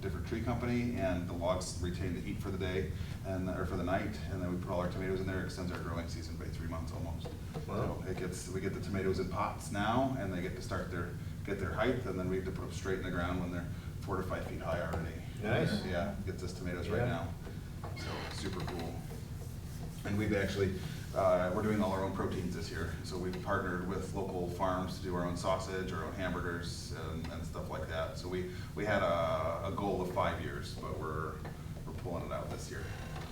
different tree company, and the logs retain the heat for the day and, or for the night, and then we put all our tomatoes in there, It extends our growing season by three months almost. Wow. So it gets, we get the tomatoes in pots now, and they get to start their, get their height, and then we have to put them straight in the ground when they're four to five feet high already. Nice. Yeah, gets us tomatoes right Yeah. now, so super cool. And we've actually, uh, we're doing all our own proteins this year, so we've partnered with local farms to do our own sausage, our own hamburgers, and, and stuff like that. So we, we had a, a goal of five years, but we're, we're pulling it out this year.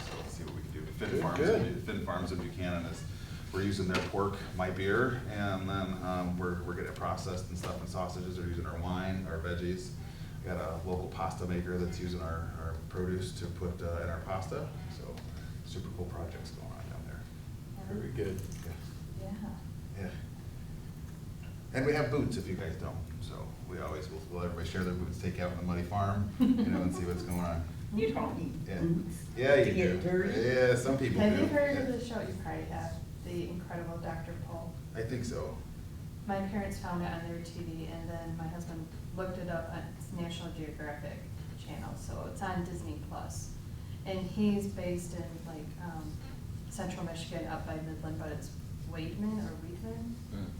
So let's see what we can do. Finn Good, Farms, good. Finn Farms in Buchanan is, we're using their pork, my beer, and then, um, we're, we're getting it processed and stuff, and sausages, we're using our wine, our veggies. Got a local pasta maker that's using our, our produce to put, uh, in our pasta, so super cool projects going on down there. Very good. Yeah. Yeah. And we have boots if you guys don't, so we always will, will everybody share their boots, take out on the muddy farm, you know, and see what's going on. You don't need Yeah. boots. Yeah, you do. To get dirty. Yeah, some people do. Have you heard of Yeah. the show, you probably have, The Incredible Dr. Paul? I think so. My parents found it on their TV, and then my husband looked it up on it's National Geographic Channel, so it's on Disney Plus. And he's based in like um, central Michigan, up by Midland, but it's Waitman or Wheatman,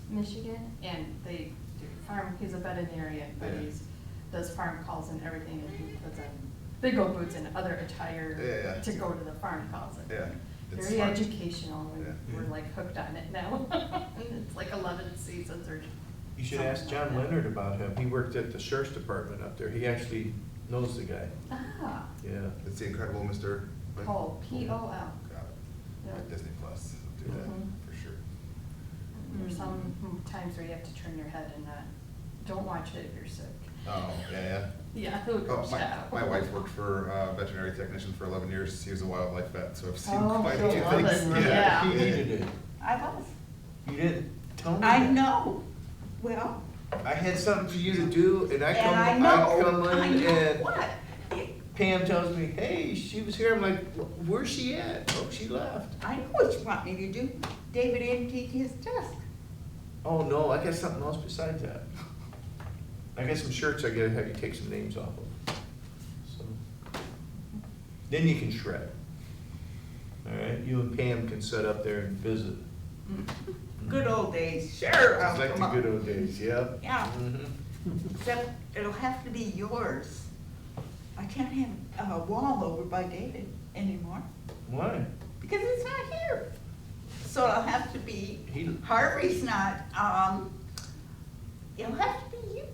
Michigan, and they do farm, he's a veterinarian, but Yeah. he's, does farm calls and everything, and he puts on big old boots and other Yeah, yeah. attire to go to the farm calls. and Yeah, it's Very smart. educational, Yeah. and we're like hooked on it now, and it's like eleven seasons or. You should ask John something like that. Leonard about him. He worked at the sheriff's department up there. He actually knows the guy. Ah, Yeah. It's the incredible Mr. what? Paul, P O L. Got it. Yeah. At Disney Plus, do Mhm. that, for sure. There's some times where you have to turn your head and not, don't watch it if you're sick. Oh, yeah, yeah. Yeah, it'll Oh, gross you my, out. my wife worked for a veterinary technician for eleven years. He was a wildlife vet, so I've seen Oh, quite a she'll few love things. it. Yeah. He needed it. I was. You didn't tell me. I that. know. Well, I had something for you to do and I and I come, I know, come I in know and what. It- Pam tells me, hey, she was here. I'm like, "Wh- where's she at? Oh, she left. I know what you want me to do. David emptied his desk. Oh, no, I got something else besides that. I got some shirts I gotta have you take some names off of. So Then you can shred. All right, you and Pam can sit up there and visit. Mm-hmm. Good old days, sure, I'll It's like come the up. good old days, yep. Yeah. Mhm. Except it'll have to be yours. I can't have a wall over by David anymore Why? because it's not here. So it'll have to be, He- Harvey's not, um, it'll have to be you.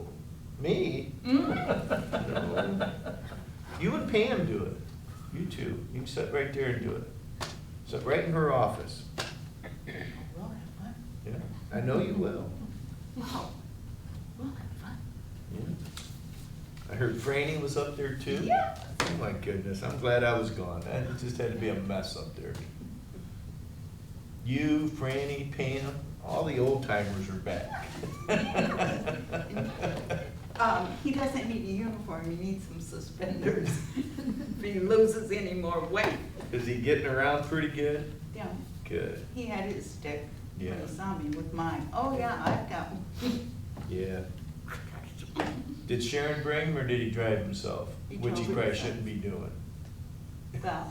Me? No. You and Pam do it. You two. You can sit right there and do it. Sit right in her office. We'll have fun. Yeah, I know you will. Wow. We'll have fun. Yeah. I heard Franny was up there too. Yeah. Oh my goodness, I'm glad I was gone. That it just had to be a mess up there. You, Franny, Pam, all the old timers are back. Um, he doesn't need a uniform, he needs some suspenders. If he loses any more weight, Is he getting around pretty good? yeah, Good, he had his stick when Yeah. he saw me with mine. Oh, yeah, I've got one. yeah. Did Sharon bring him or did he drive himself? He Which he drove probably himself. shouldn't be doing. Well,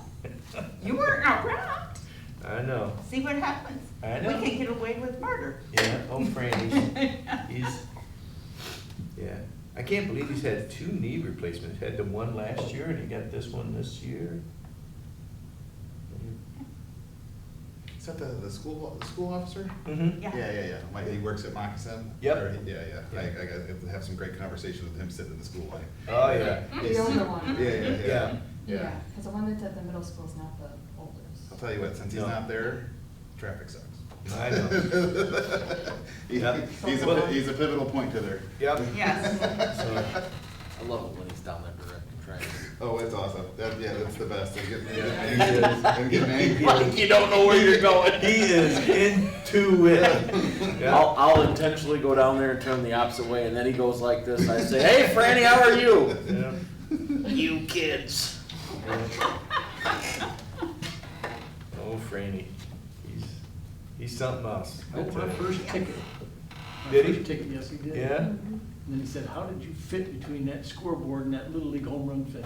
you weren't around. I know, See what happens? I know. We can get away with murder. yeah, old Franny. He's, yeah, I can't believe he's had two knee replacements, had the one last year and he got this one this year. Is that the, the school, the school officer? Mm-hmm, Yeah. Yeah, yeah, yeah. Like, he works at Moccasin? Yep. Or he- Yeah, yeah. I, Yeah. I got- I have some great conversations with him sitting in the school line. Oh, yeah. The older one. Yeah, yeah, yeah. Yeah. Yeah, because the one that's at the middle school is not the oldest. I'll tell you what, since he's No. not there, traffic sucks. I know. He- Yep. He's a, pi- he's a pivotal point to there. Yep. Yes. So, I love it when he's down there directing traffic. Oh, it's awesome. That, yeah, that's the best. I'm getting, Yeah. I'm getting angry. I'm getting angry. You don't know where you're going. He is into it. Yeah. I'll, I'll intentionally go down there and turn the opposite way, and then he goes like this. I say, "Hey, Franny, how are you?" Yeah. You kids. Oh, Franny, he's, he's something else. I Oh, my tell you. first ticket. Did he? First Ticket, yes, he did. Yeah? And then he said, how did you fit between that scoreboard and that Little League home run fence?